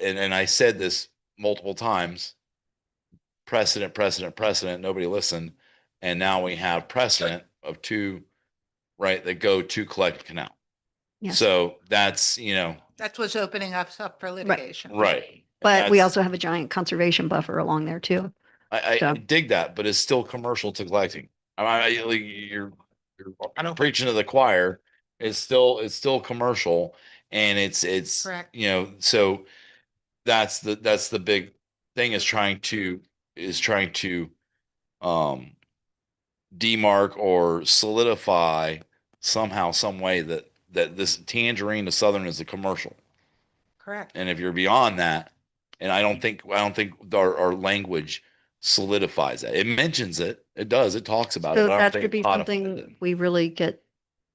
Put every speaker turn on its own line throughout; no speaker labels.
and, and I said this multiple times. Precedent, precedent, precedent, nobody listened. And now we have precedent of two, right, that go to collect canal.
Yeah.
So that's, you know,
That's what's opening us up for litigation.
right.
But we
That's-
also have a giant conservation buffer along there too.
I, I
So-
dig that, but it's still commercial to collecting. I, I, like, you're, you're preaching to the choir. It's still, it's still commercial and it's, it's,
Correct.
you know, so that's the, that's the big thing is trying to, is trying to, um, demarc or solidify somehow, some way that, that this tangerine to southern is a commercial.
Correct.
And if you're beyond that, and I don't think I don't think our, our language solidifies that. It mentions it. It does. It talks about
So
it. but I don't
that
think it
could be
codifies it.
something we really get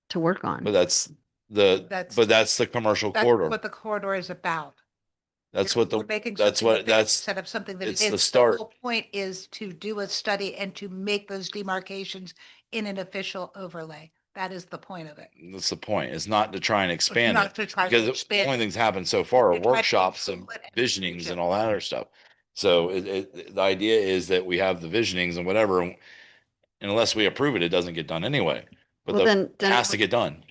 to work
But
on.
that's the
That's-
but that's the commercial
That's
corridor.
what the corridor is about.
that's
You're-
what the
we're making
that's
something
what-
big
that's-
Instead of something that it
it's the
is.
start.
whole Point is to do a study and to make those demarcations in an official overlay. That is the point of it.
that's the point. It's not to try and
It's
expand
not
it
to try to
because it- the
expand
only
it,
things happened so far
to
are
try to
workshops and
control it and
visionings
it.
and all that other stuff. So it, it, the idea is that we have the visionings and whatever, and unless we approve it, it doesn't get done anyway. But
Well,
the,
then,
it
then
has to get done.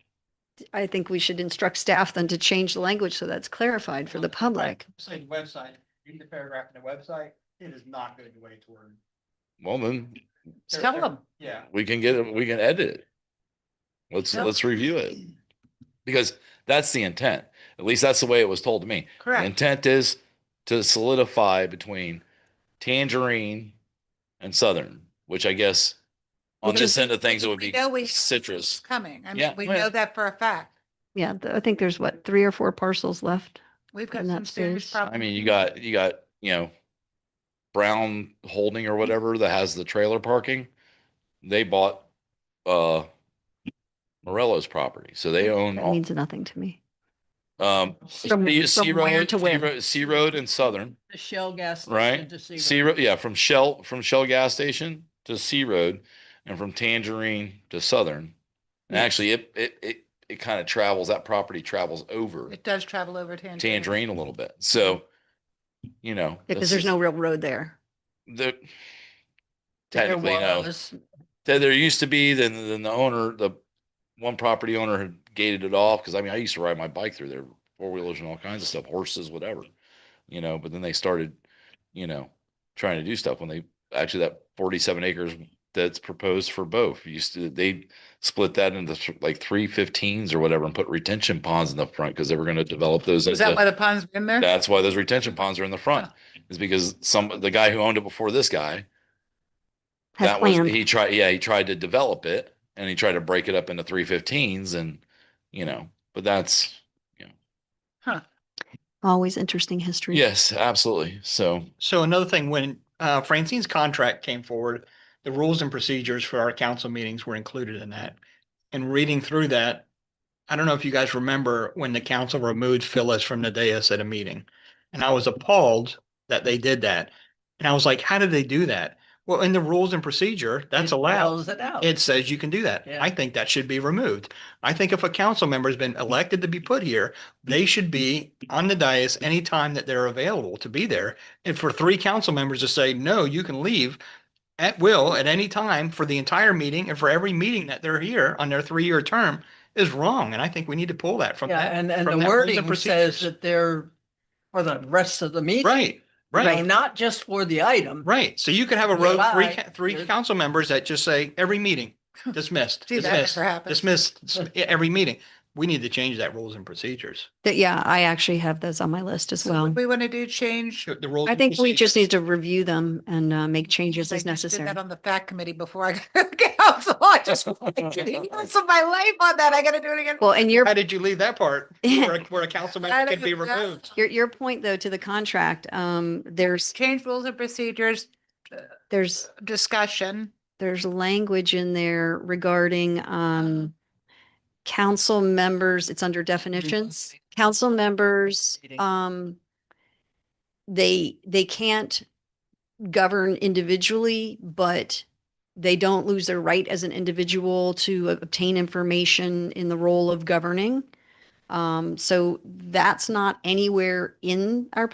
I think we should instruct staff then to change the language so that's clarified for the public.
Say the website, read the paragraph in the website, it is not going to wait toward.
Well, then
they're-
Tell
they're-
them.
Yeah.
we can get it, we can edit it. Let's,
Yeah.
let's review it. Because that's the intent. At least that's the way it was told to me. The
Correct.
intent is to solidify between Tangerine and Southern, which I guess
Well,
on this end of things, it
because
would
we
be
know we have-
citrus.
It's coming. I
Yeah,
mean, we
well-
know that for a fact.
Yeah, th- I think there's what, three or four parcels left.
We've got
And
some
that's
serious
serious.
problems.
I mean, you got, you got, you know, Brown Holding or whatever that has the trailer parking. They bought, uh, Morello's property. So they own.
That
all-
means nothing to me.
Um,
From-
Sea Sea
from where
Road,
to
Sea
where?
Road- Sea Road and Southern,
the Shell gas. station
right?
to Sea
Sea
Road.
Road, yeah, from Shell, from Shell gas station to Sea Road and from Tangerine to Southern. And
Yeah.
actually, it, it, it, it kind of travels, that property travels over
It does travel over to Tangerine.
Tangerine a little bit. So, you know.
Because
this
there's
is
no real road there.
The,
There
technically, no.
was-
There, there used to be, then, then the owner, the one property owner had gated it off, because I mean, I used to ride my bike through there, four wheelers and all kinds of stuff, horses, whatever. You know, but then they started, you know, trying to do stuff when they, actually that forty-seven acres that's proposed for both, used to, they split that into th- like three fifteens or whatever and put retention ponds in the front, because they were gonna develop those.
Is that
into-
why the pond's been there?
that's why those retention ponds are in the front, is because some, the guy who owned it before this guy
Has
that was,
planned.
he tried, yeah, he tried to develop it and he tried to break it up into three fifteens and, you know, but that's,
Always interesting history.
yes, absolutely. So,
So another thing, when uh, Francine's contract came forward, the rules and procedures for our council meetings were included in that. And reading through that, I don't know if you guys remember when the council removed Phyllis from the dais at a meeting. And I was appalled that they did that. And I was like, how did they do that? Well, in the rules and procedure, that's
it
allowed.
allows it out.
It says you can do that.
Yeah.
I think that should be removed. I think if a council member's been elected to be put here, they should be on the dais anytime that they're available to be there. And for three council members to say, no, you can leave at will at any time for the entire meeting and for every meeting that they're here on their three-year term is wrong. And I think we need to pull that from
Yeah,
that.
and, and
from
the
that rules
wording
and
says
procedures.
that they're for the rest of the meeting.
Right,
So
right,
Not just for the item.
right. So you could have a row, three,
July,
ca- three
there's-
council members that just say, every meeting dismissed,
See, that
dismissed.
never happens.
dismissed s- every meeting. We need to change that rules and procedures.
That- Yeah, I actually have those on my list as
So what
well.
We want to do change.
The rules.
I
and
think we just
procedures.
need to review them and uh, make changes
I
as
just did
necessary.
That on the fact committee before I got council. I just, so my life on that, I gotta do it again.
Well, and your
How did you leave that part where, a- where a council
I
member can
don't
be
know.
removed?
Your, your point though, to the contract, um, there's,
Change rules and procedures,
there's,
discussion.
there's language in there regarding, um, council members, it's under definitions, council members, um, they, they can't govern individually, but they don't lose their right as an individual to obtain information in the role of governing. Um, so that's not anywhere in our